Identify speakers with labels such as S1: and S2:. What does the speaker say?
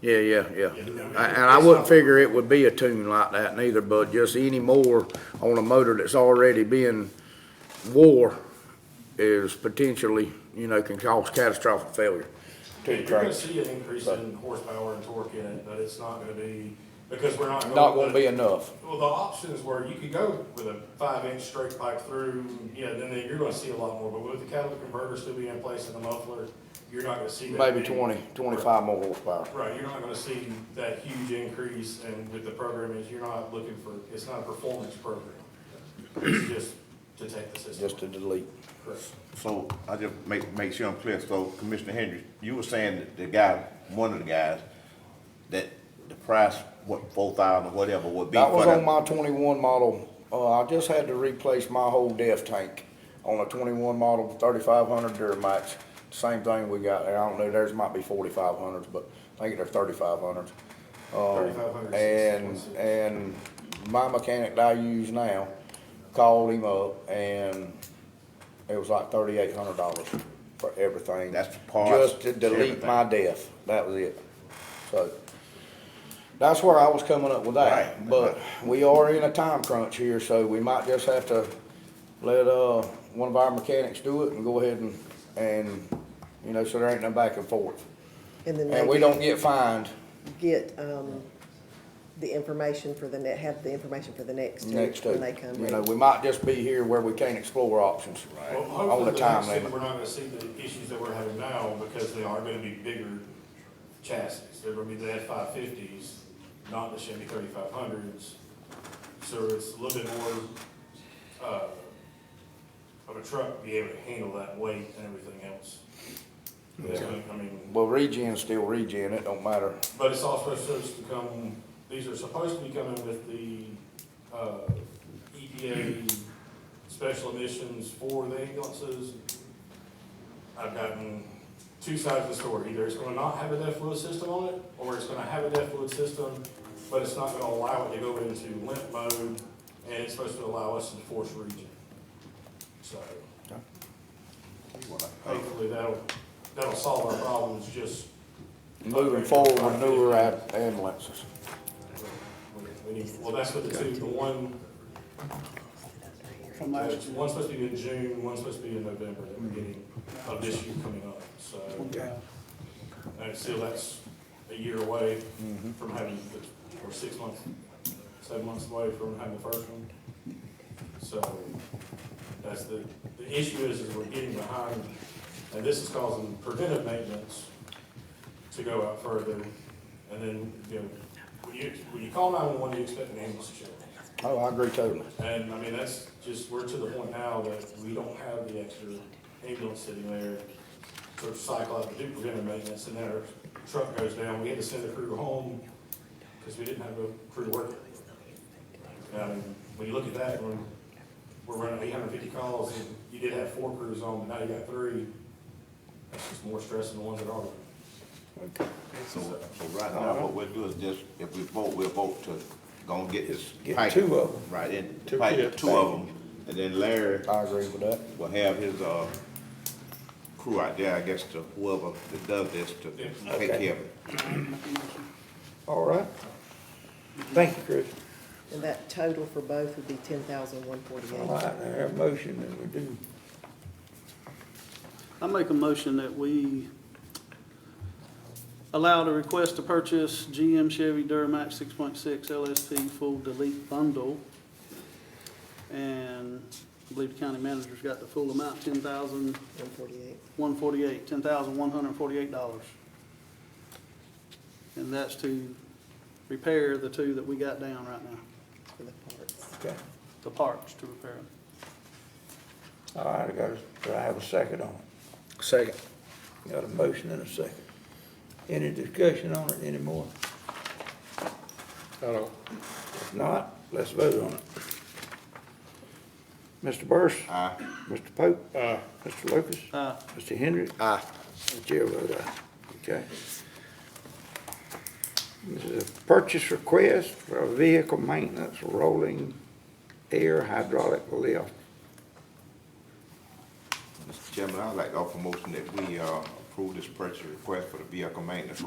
S1: Yeah, yeah, yeah. And I wouldn't figure it would be a tune like that neither, but just any more on a motor that's already been wore is potentially, you know, can cause catastrophic failure to the
S2: You're gonna
S1: tractor.
S2: see an increase in horsepower and torque in it, but it's not gonna be, because we're not.
S1: Not gonna be enough.
S2: Well, the options were, you could go with a five-inch straight pipe through, you know, then then you're gonna see a lot more, but with the catalytic converter still being in place and the muffler, you're not gonna see that.
S1: Maybe
S2: big-
S1: 20, 25 more horsepower.
S2: Right, you're not gonna see that huge increase, and with the program is, you're not looking for, it's not a performance program. It's just to take the system.
S1: Just to delete.
S2: Correct.
S3: So I just make, make sure I'm clear, so Commissioner Hendry, you were saying that the guy, one of the guys, that the price, what, four thousand or whatever would be
S1: That
S3: for
S1: was on
S3: that?
S1: my twenty-one model. Uh, I just had to replace my whole def tank on a twenty-one model thirty-five hundred Duramax. Same thing we got there. I don't know, theirs might be forty-five hundreds, but I think they're thirty-five hundreds.
S2: Thirty-five hundred.
S1: uh, And, and my mechanic that I use now called him up and it was like thirty-eight hundred dollars for everything.
S3: That's the parts,
S1: Just to delete
S3: everything.
S1: my def. That was it. So that's where I was coming up with that.
S3: Right.
S1: But we are in a time crunch here, so we might just have to let, uh, one of our mechanics do it and go ahead and, and, you know, so there ain't no back and forth.
S4: And then
S1: And we
S4: they
S1: don't get fined
S4: get, um, the information for the net, have the information for the next two
S1: next to,
S4: when they come
S1: you know,
S4: in.
S1: we might just be here where we can't explore options
S2: Well,
S1: on
S2: hopefully
S1: the
S2: the
S1: time
S2: next thing,
S1: limit.
S2: we're not gonna see the issues that we're having now, because they are gonna be bigger chassis. They're gonna be the F five fifties, not the Chevy thirty-five hundreds. So it's a little bit more, uh, of a truck to be able to handle that weight and everything else. That's what- I mean,
S1: Well, regen still regen, it don't matter.
S2: but it's also supposed to come, these are supposed to be coming with the, uh, EPA special emissions for the ambulances. I've gotten two sides of the story, either it's gonna not have a DEF fluid system on it, or it's gonna have a DEF fluid system, but it's not gonna allow it to go into limp mode, and it's supposed to allow us to force region. So, hopefully that'll, that'll solve our problems, just
S1: Moving forward with newer ab- ambulances.
S2: We need- Well, that's what the two, the one,
S5: From last year. Mm-hmm.
S2: one's supposed to be in June, one's supposed to be in November, the beginning of this year coming up, so. And still, that's a year away
S5: Mm-hmm.
S2: from having, the- or six months, seven months away from having the first one. So, that's the, the issue is, is we're getting behind, and this is causing preventive maintenance to go out further, and then, you know, when you, when you call nine-one-one, you expect an ambulance to show up.
S1: Oh, I agree totally.
S2: And I mean, that's just, we're to the point now that we don't have the extra ambulance sitting there to cycle out the do preventive maintenance and then our truck goes down. We had to send a crew home because we didn't have a crew working. And when you look at that, when we're running eight hundred fifty calls and you did have four crews on, but now you got three. That's just more stress than the ones that are.
S3: So, so right now, what we'll do is just, if we vote, we'll vote to go and get this.
S1: Get
S3: pipe,
S1: two of 'em.
S3: Right, and
S1: Two
S3: pipe
S1: kids.
S3: two of them, and then Larry
S1: I agree with that.
S3: will have his, uh, crew out there, I guess, to whoever that does this to
S2: Yeah.
S3: take
S1: Okay.
S3: care of it.
S1: All right. Thank you, Chris.
S4: And that total for both would be ten thousand one
S6: All
S4: forty-eight.
S6: right, I have a motion that we do.
S5: I make a motion that we allow the request to purchase GM Chevy Duramax six point six LSP full delete bundle. And I believe the county manager's got the full amount, ten thousand
S4: One forty-eight.
S5: one forty-eight, ten thousand one hundred forty-eight dollars. And that's to repair the two that we got down right now,
S4: for the parts.
S6: Okay.
S5: the parts to repair them.
S6: All right, I got, a- do I have a second on it.
S1: Second.
S6: Got a motion and a second. Any discussion on it anymore?
S1: Hello.
S6: If not, let's vote on it. Mr. Burris? Aye. Mr. Pope? Aye. Mr. Lucas?
S5: Uh,
S6: Mr. Henry?
S1: Aye.
S6: The chair vote aye. Okay. This is a purchase request for a vehicle maintenance rolling air hydraulic lift.
S3: Mr. Chairman, I'd like to offer a motion that we, uh, approve this purchase request for the vehicle maintenance